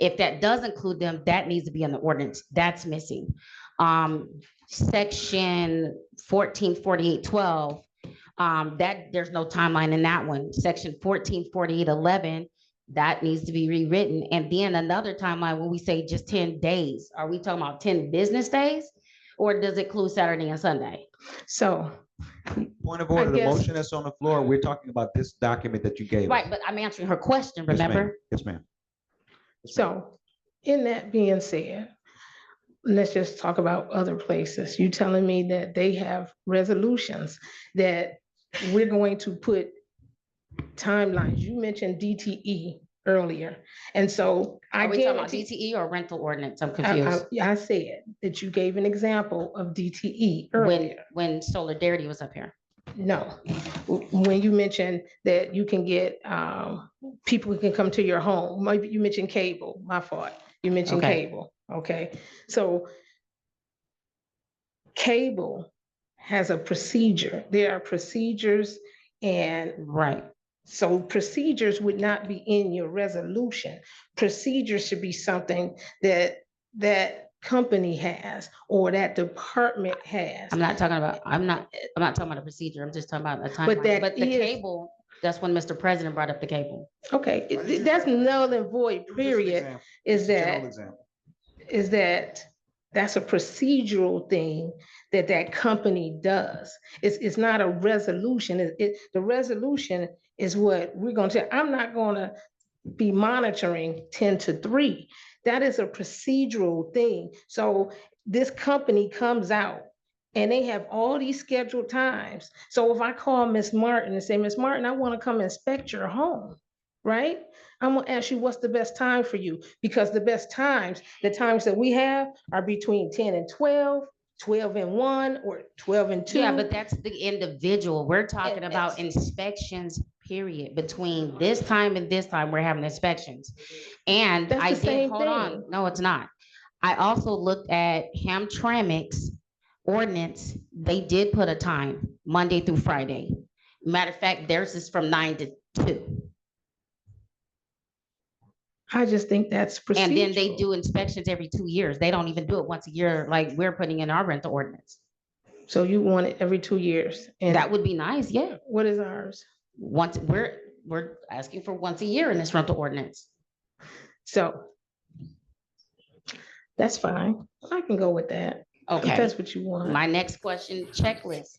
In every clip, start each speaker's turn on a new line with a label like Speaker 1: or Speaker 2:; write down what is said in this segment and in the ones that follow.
Speaker 1: If that does include them, that needs to be in the ordinance. That's missing. Um, section fourteen forty-eight twelve, um, that, there's no timeline in that one. Section fourteen forty-eight eleven, that needs to be rewritten. And then another timeline when we say just ten days, are we talking about ten business days? Or does it include Saturday and Sunday?
Speaker 2: So,
Speaker 3: Point of order, the
Speaker 2: guess-
Speaker 3: motion that's on the floor, we're talking about this document that you gave. us.
Speaker 1: Right, but I'm answering her question,
Speaker 3: Yes, ma'am.
Speaker 1: remember?
Speaker 3: Yes, ma'am. Yes, ma'am.
Speaker 2: so in that being said, let's just talk about other places. You telling me that they have resolutions that we're going to put timelines. You mentioned DTE earlier. And so I Uh,
Speaker 1: Are we talking about E?
Speaker 2: guarantee,
Speaker 1: DTE or rental ordinance? I'm
Speaker 2: I,
Speaker 1: confused.
Speaker 2: I- I said that you gave an example of DTE
Speaker 1: When,
Speaker 2: earlier.
Speaker 1: when Solidarity was up here.
Speaker 2: No, W- when you mentioned that you can get, um, people who can come to your home, maybe you mentioned cable, my fault. You mentioned
Speaker 1: Okay.
Speaker 2: cable, okay? So cable has a procedure. There are procedures and
Speaker 1: Right.
Speaker 2: so procedures would not be in your resolution. Procedures should be something that, that company has or that department has.
Speaker 1: I'm not talking about, I'm not, I'm not talking about a procedure. I'm just talking about a timeline.
Speaker 2: that
Speaker 1: But the
Speaker 2: is-
Speaker 1: cable, that's when Mr. President brought up the cable.
Speaker 2: Okay, it- it- that's null and void,
Speaker 3: Just an
Speaker 2: period,
Speaker 3: example,
Speaker 2: is
Speaker 3: general
Speaker 2: that,
Speaker 3: example.
Speaker 2: is that, that's a procedural thing that that company does. It's, it's not a resolution, it, it, the resolution is what we're gonna say, I'm not gonna be monitoring ten to three. That is a procedural thing, so this company comes out and they have all these scheduled times. So if I call Miss Martin and say, Miss Martin, I wanna come inspect your home, right? I'm gonna ask you, what's the best time for you? Because the best times, the times that we have are between ten and 12, 12 and one, or twelve and two.
Speaker 1: Yeah, but that's the individual. We're talking
Speaker 2: And
Speaker 1: about inspections, period. Between this time and this time, we're having inspections. And
Speaker 2: That's
Speaker 1: I
Speaker 2: the
Speaker 1: did,
Speaker 2: same
Speaker 1: hold on,
Speaker 2: thing.
Speaker 1: no, it's not. I also looked at Hamtramck's ordinance. They did put a time, Monday through Friday. Matter of fact, theirs is from nine to two.
Speaker 2: I just think that's procedural.
Speaker 1: And then they do inspections every two years. They don't even do it once a year like we're putting in our rental ordinance.
Speaker 2: So you want it every two years? And
Speaker 1: That would be nice, yeah.
Speaker 2: What is ours?
Speaker 1: once, we're, we're asking for once a year in this rental ordinance.
Speaker 2: So that's fine. I can go with that. If
Speaker 1: Okay,
Speaker 2: that's what you want.
Speaker 1: my next question, checklists.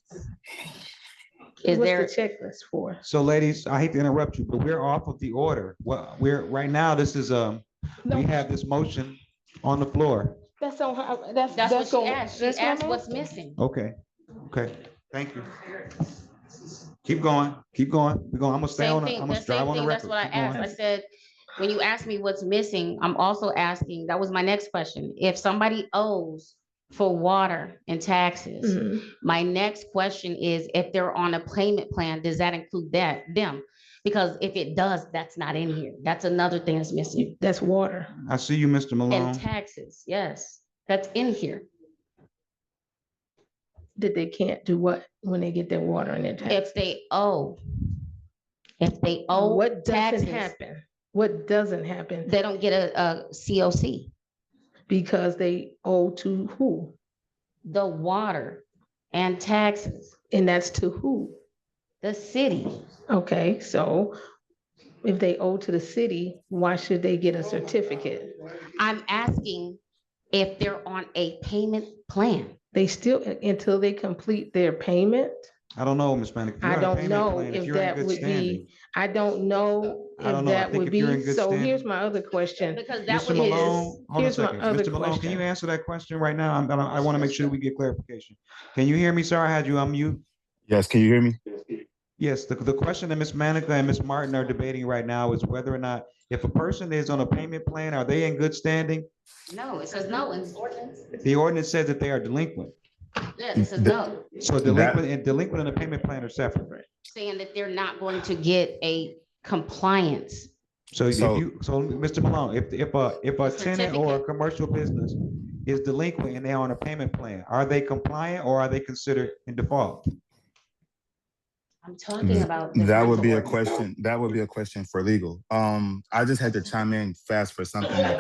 Speaker 1: Is
Speaker 2: What's the
Speaker 1: there,
Speaker 2: Checklist for.
Speaker 3: So ladies, I hate to interrupt you, but we're off of the order. Well, we're, right now, this is, um, we
Speaker 2: No,
Speaker 3: have this motion on the floor.
Speaker 2: that's on, her- that's,
Speaker 1: that's what
Speaker 2: that's
Speaker 1: she
Speaker 2: on.
Speaker 1: asked. She
Speaker 2: that's on
Speaker 1: asked
Speaker 2: her.
Speaker 1: what's missing.
Speaker 3: Okay, okay, thank you. Keep going, keep going. We're going, I'm gonna stay
Speaker 1: Same
Speaker 3: on, the-
Speaker 1: thing,
Speaker 3: I'm
Speaker 1: the
Speaker 3: gonna drive
Speaker 1: same
Speaker 3: on the
Speaker 1: thing, that's
Speaker 3: record.
Speaker 1: what I
Speaker 3: Keep going.
Speaker 1: asked. I said, when you ask me what's missing, I'm also asking, that was my next question. If somebody owes for water and taxes,
Speaker 2: Mhm.
Speaker 1: My next question is if they're on a payment plan, does that include that, them? Because if it does, that's not in here. That's another thing that's missing.
Speaker 2: That's water.
Speaker 3: I see you, Mr.
Speaker 1: And
Speaker 2: Mm-hmm.
Speaker 3: Malone.
Speaker 1: taxes, yes, that's in here.
Speaker 2: That they can't do what when they get their water and their tax.
Speaker 1: If they owe, if they owe,
Speaker 2: What doesn't
Speaker 1: taxes.
Speaker 2: happen? What doesn't happen?
Speaker 1: they don't get a, a COC.
Speaker 2: Because they owe to who?
Speaker 1: The water and taxes,
Speaker 2: And that's to who?
Speaker 1: the city.
Speaker 2: Okay, so if they owe to the city, why should they get a certificate?
Speaker 1: I'm asking if they're on a payment plan.
Speaker 2: They still, until they complete their payment,
Speaker 3: I don't know, Ms. Manica. if
Speaker 2: I
Speaker 3: you're on a
Speaker 2: don't
Speaker 3: payment
Speaker 2: know
Speaker 3: plan,
Speaker 2: if
Speaker 3: you're in
Speaker 2: that
Speaker 3: good
Speaker 2: would be-
Speaker 3: standing.
Speaker 2: I don't know
Speaker 3: I don't
Speaker 2: if
Speaker 3: know. I
Speaker 2: that
Speaker 3: think
Speaker 2: would
Speaker 3: if you're in
Speaker 2: be,
Speaker 3: good
Speaker 2: so
Speaker 3: standing-
Speaker 2: here's my other question.
Speaker 1: Because that
Speaker 3: Mr.
Speaker 1: would
Speaker 2: is-
Speaker 3: Malone, hold on a
Speaker 2: here's my
Speaker 3: second.
Speaker 2: other
Speaker 3: Mr. Malone, can you
Speaker 2: question.
Speaker 3: answer that question right now? I'm, I want to make sure we get clarification. Can you hear me, sir? I had you on mute.
Speaker 4: Yes, can you hear me?
Speaker 3: Yes, the, the question that Ms. Manica and Ms. Martin are debating right now is whether or not, if a person is on a payment plan, are they in good standing?
Speaker 1: no, it says no in the ordinance.
Speaker 3: The ordinance says that they are delinquent.
Speaker 1: Yeah, it says no.
Speaker 3: So delinquent and delinquent and a payment plan are separate.
Speaker 1: saying that they're not going to get a compliance.
Speaker 3: So if
Speaker 4: So-
Speaker 3: you, so Mr. Malone, if, if a, if a tenant or a commercial business is delinquent and they're on a payment plan, are they compliant or are they considered in default?
Speaker 1: I'm talking
Speaker 4: Mm,
Speaker 1: about. the
Speaker 4: That would
Speaker 1: rental
Speaker 4: be a
Speaker 1: ordinance.
Speaker 4: question, that would be a question for legal. Um, I just had to chime in fast for something that